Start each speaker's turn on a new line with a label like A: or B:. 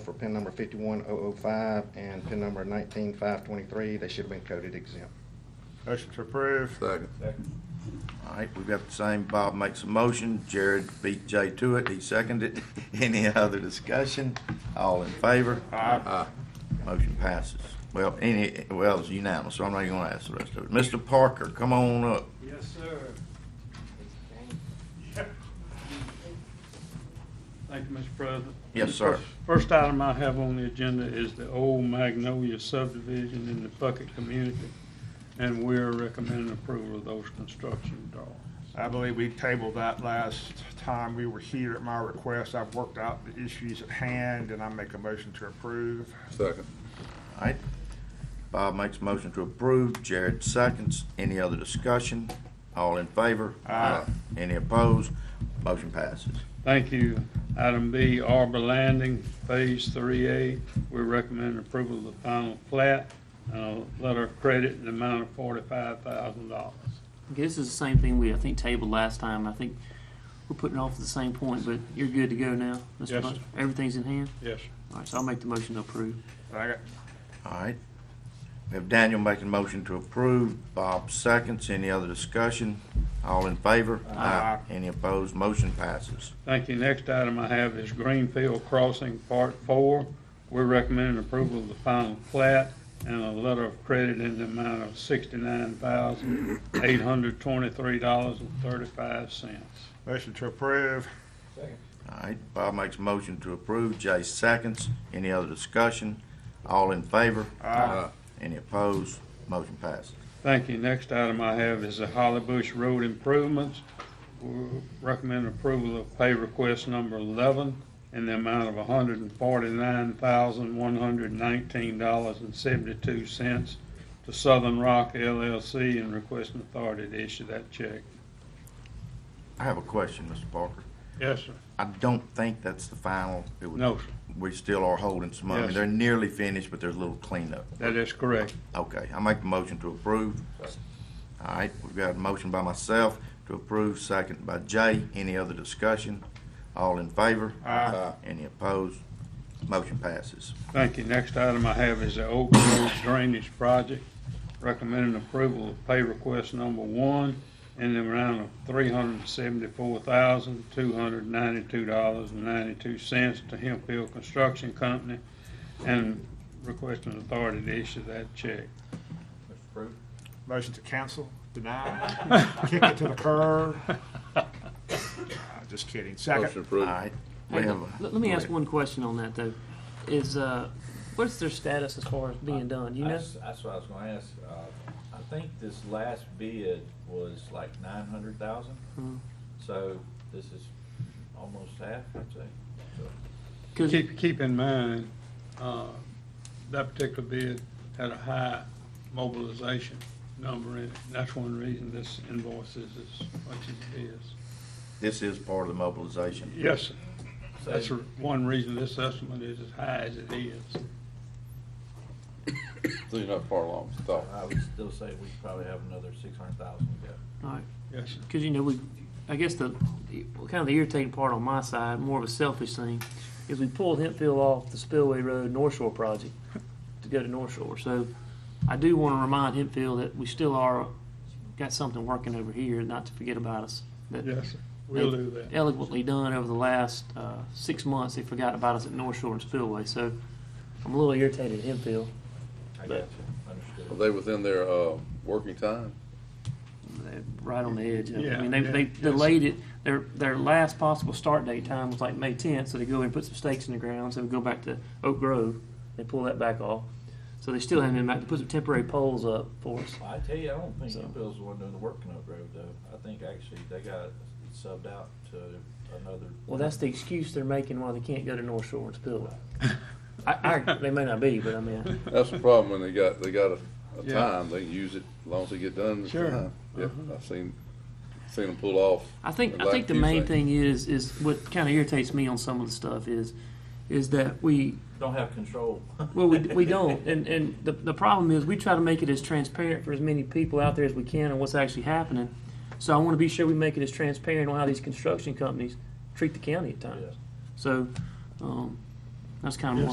A: for pin number fifty-one oh oh five and pin number nineteen five twenty-three. They should have been coded exempt.
B: Motion to approve.
C: Second.
D: All right, we've got the same, Bob makes a motion, Jared beat Jay to it, he seconded it. Any other discussion? All in favor?
C: Aye.
D: Motion passes. Well, any, well, it's unanimous, so I'm not even gonna ask the rest of it. Mr. Parker, come on up.
E: Yes, sir. Thank you, Mr. President.
D: Yes, sir.
E: First item I have on the agenda is the old Magnolia subdivision in the Bucket community, and we're recommending approval of those construction drawings.
B: I believe we tabled that last time we were here at my request. I've worked out the issues at hand and I make a motion to approve.
C: Second.
D: All right. Bob makes a motion to approve, Jared seconds. Any other discussion? All in favor?
B: Aye.
D: Any opposed? Motion passes.
E: Thank you. Item B, Arbor Landing, Phase 3A, we recommend approval of the final plat, and a letter of credit in the amount of $45,000.
F: Okay, this is the same thing we, I think, tabled last time. I think we're putting off the same point, but you're good to go now, Mr.
E: Yes,
F: Bunch? Everything's in hand?
E: Yes, sir.
F: All right, so I'll make the motion to approve.
B: Second.
D: All right. We have Daniel making a motion to approve, Bob seconds. Any other discussion? All in favor?
B: Aye.
D: Any opposed? Motion passes.
E: Thank you. Next item I have is Greenfield Crossing Part Four. We're recommending approval of the final plat and a letter of credit in the amount of sixty-nine thousand, eight hundred twenty-three dollars and thirty-five cents.
B: Motion to approve.
D: All right, Bob makes a motion to approve, Jay seconds. Any other discussion? All in favor?
B: Aye.
D: Any opposed? Motion passes.
E: Thank you. Next item I have is the Holly Bush Road Improvements. We Recommend approval of pay request number eleven in the amount of hundred and forty-nine thousand, one hundred nineteen dollars and seventy-two cents to Southern Rock LLC and requesting authority to issue that check.
D: I have a question, Mr. Parker.
E: Yes, sir.
D: I don't think that's the final. It was-
E: No, sir.
D: We still are holding some money.
E: Yes.
D: They're nearly finished, but there's a little cleanup.
E: That is correct.
D: Okay, I make the motion to approve. All right, we've got a motion by myself to approve, second by Jay. Any other discussion? All in favor?
B: Aye.
D: Any opposed? Motion passes.
E: Thank you. Next item I have is the Oak Grove Drainage Project. Recommending approval of pay request number one in the amount of three hundred and seventy-four thousand, two hundred and ninety-two dollars and ninety-two cents to Hemp Hill Construction Company and requesting authority to issue that check.
B: Motion to cancel, deny, kick it to the curb. Uh, Just kidding.
C: Motion
B: Second.
D: All
C: approved.
D: right. we
F: Hey,
D: have
F: Let
D: a-
F: let me
D: go
F: ask
D: ahead.
F: one question on that, though. Is, uh, what's their status as far as being done, you know?
G: That's, that's what I was gonna ask. Uh, I think this last bid was like nine hundred thousand.
F: Hmm.
G: So this is almost half, I'd say. So,
F: 'Cause-
E: Keep, keep in mind, uh, that particular bid had a high mobilization number in it. That's one reason this invoice is as much as it is.
D: This is part of the mobilization.
E: Yes, sir. that's
G: so
E: r- one reason this estimate is as high as it is.
C: So you're not far along, it's thought.
G: I would still say we probably have another six hundred thousand to go.
F: All right.
E: Yes, sir.
F: Because, you know, we, I guess the, the- kind of the irritating part on my side, more of a selfish thing, is we pulled Hempfield off the Spillway Road North Shore project to go to North Shore. So I do want to remind Hempfield that we still are, got something working over here, not to forget about us. That
E: Yes, sir. We'll do that.
F: eloquently done over the last uh, six months, they forgot about us at North Shore and Spillway. So I'm a little irritated at Hempfield.
G: I got
F: But-
G: you, understood.
C: Are they within their, uh, working time?
F: They're right on the edge. of it. I mean,
E: Yeah,
F: they,
E: yeah,
F: they
E: yes.
F: delayed it. Their, their last possible start date time was like May tenth, so they go in and put some stakes in the ground, so we go back to Oak Grove. They pull that back off. So they still haven't been back. They put some temporary poles up for us.
G: Well, I tell you, I don't think
F: So-
G: Hempel's the one doing the work in Oak Grove though. I think actually they got it subbed out to another.
F: Well, that's the excuse they're making why they can't go to North Shore and Spillway. I, I, they may not be, but I mean,
C: That's the problem when they got, they got a, a
E: Yeah.
C: time, they can use it as long as they get done. it's
E: Sure. Uh-huh.
C: fine. Yep, I've seen, seen them pull off.
F: I think, I
C: Like
F: think the
C: you
F: main
C: say.
F: thing is, is what kind of irritates me on some of the stuff is, is that we,
G: Don't have control.
F: Well, we, we don't, and and the the problem is we try to make it as transparent for as many people out there as we can on what's actually happening. So I want to be sure we make it as transparent on how these construction companies treat the county at times.
G: Yeah.
F: So um, that's kind of
E: Yes,
F: more